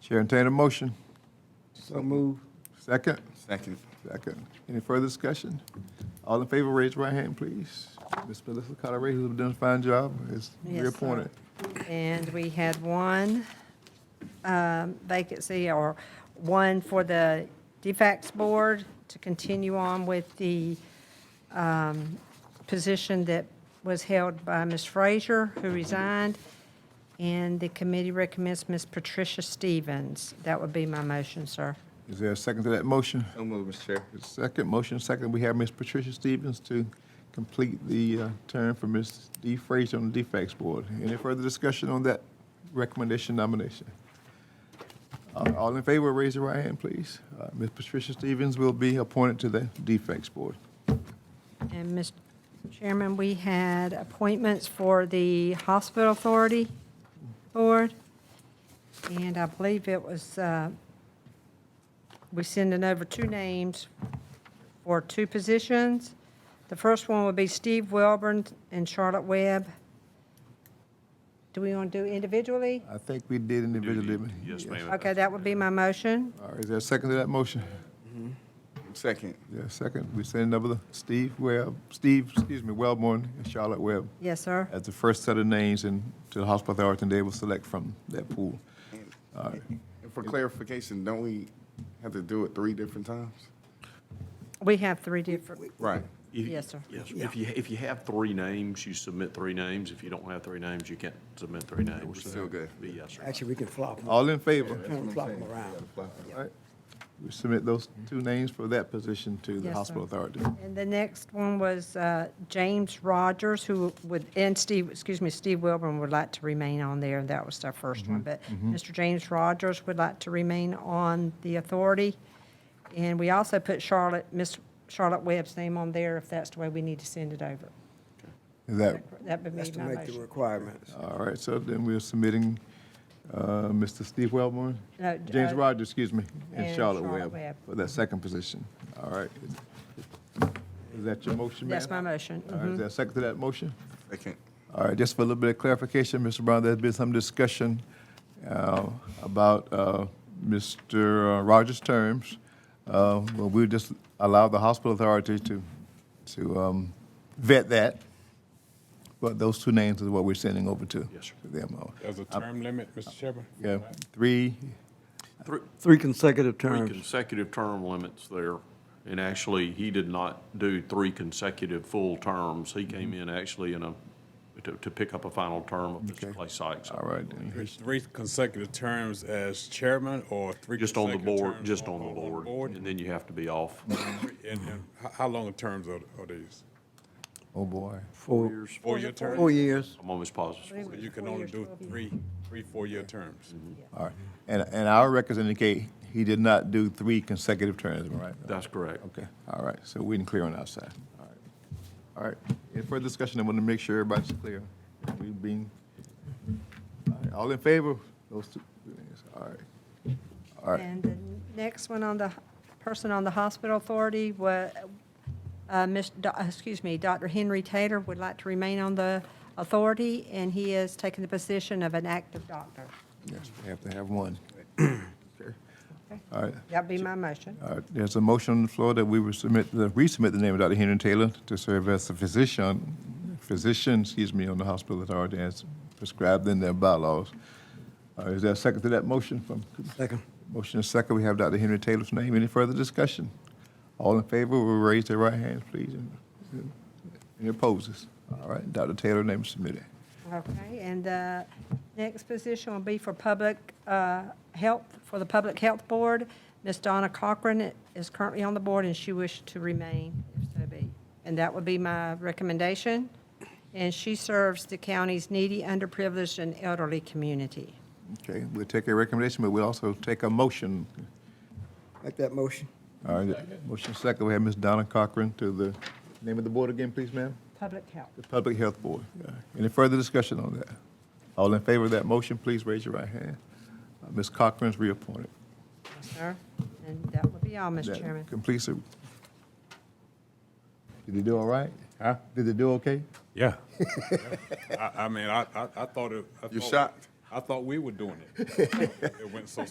Chair, entertain a motion. So move. Second? Second. Second. Any further discussion? All in favor, raise your right hand, please. Ms. Melissa Colorado, who's done a fine job, is Yes, sir. reappointed. And we had one um, vacancy, or one for the DFAX Board to continue on with the um, position that was held by Ms. Frazier, who resigned, and the committee recommends Ms. Patricia Stevens. That would be my motion, sir. Is there a second to that motion? So moved, Mr. Chair. Second, motion second, we have Ms. Patricia Stevens to complete the uh, term for Ms. Dee Frazier on the DFAX Board. Any further discussion on that recommendation nomination? Uh, All in favor, raise your right hand, please. Uh, Ms. Patricia Stevens will be appointed to the DFAX Board. And, Mr. Chairman, we had appointments for the Hospital Authority Board, and I believe it was, uh, we sending over two names for two positions. The first one would be Steve Welborn and Charlotte Webb. Do we want to do individually? I think we did individually. Yes, ma'am. Okay, that would be my motion. All right, is there a second to that motion? Mm-hmm. Second. Yeah, second, we send over the Steve Webb, Steve, excuse me, Wellborn and Charlotte Webb Yes, sir. as the first set of names and to the hospital authority, and they will select from that pool. All right. And For clarification, don't we have to do it three different times? We have three different, Right. If- Yes, sir. Yes, if you, if you have three names, you submit three names. If you don't have three names, you can't submit three names. We're still good. Yes, sir. Actually, we can flop them, All in favor? we can flop them around. All right. We submit those two names for that position to the Yes, sir. hospital authority. And the next one was uh, James Rogers, who would, and Steve, excuse me, Steve Wilburn would like to remain on there, that was our first one, but Mr. James Rogers would like to remain on the authority. And we also put Charlotte, Miss Charlotte Webb's name on there, if that's the way we need to send it over. Is that, That would That's be to my make the motion. requirements. all right, so then we're submitting uh, Mr. Steve Wellborn? No, James uh, Rogers, excuse me, and and Charlotte Charlotte Webb Webb. for that second position. All right. Is that your motion, ma'am? That's my motion. Mm-hmm. All right, is there a second to that motion? Second. All right, just for a little bit of clarification, Mr. Brown, there's been some discussion uh, about uh, Mr. Rogers' terms. Uh, Well, we just allow the hospital authority to, to um, vet that, but those two names is what we're sending over to. Yes, sir. to them. Uh, There's a term limit, Mr. Chairman? Yeah, three, Three, Three consecutive three terms. consecutive term limits there. And actually, he did not do three consecutive full terms. He came in actually in a, to, to pick up a final term of Mr. Clay Sykes. all right. then. There's Three consecutive terms as chairman or three Just on the consecutive board, terms just on the board, and And, then you have to be off. Mm-hmm. and how, how long terms are, are these? Oh, boy. Four, Years. Four-year terms? four years. I'm almost positive. So you can only do three, three, four-year terms. All right. And, and our records indicate he did not do three consecutive terms, am I right? That's correct. Okay, all right, so we didn't clear on our side. All right. All right, any further discussion, I want to make sure everybody's clear. We've been, all right, all in favor, those two, things. all right. All right, And the next one on the, person on the hospital authority was, uh, Miss, Do- excuse me, Dr. Henry Taylor would like to remain on the authority, and he is taking the position of an active doctor. yes, we have to have one. All right, That'd be my motion. all right, Uh, there's a motion on the floor that we will submit, the- resubmit the name of Dr. Henry Taylor to serve as a physician, physician, excuse me, on the hospital authority as prescribed in their bylaws. Uh, Is there a second to that motion from Second. Motion is second. We have Dr. Henry Taylor's name. Any further discussion? All in favor will raise their right hands, please. and- Any opposes? All right, Dr. Taylor, name is submitted. Okay, and the next position will be for public uh, health, for the Public Health Board. Miss Donna Cochran is currently on the board, and she wished to remain, if so be. And that would be my recommendation. And she serves the county's needy, underprivileged, and elderly community. Okay, we'll take a recommendation, but we'll also take a motion. Make that motion. All right, motion is second. We have Ms. Donna Cochran to the, name of the board again, please, ma'am? Public health. The Public Health Board. Yeah. Any further discussion on that? All in favor of that motion, please raise your right hand. Uh, Ms. Cochran's reappointed. Yes, sir. And that would be all, Mr. That Chairman. Completes it. Did he do all right? Huh? Did he do okay? Yeah. I, I mean, I, I, I thought it. I You thought- shocked? I thought we were doing it. It went so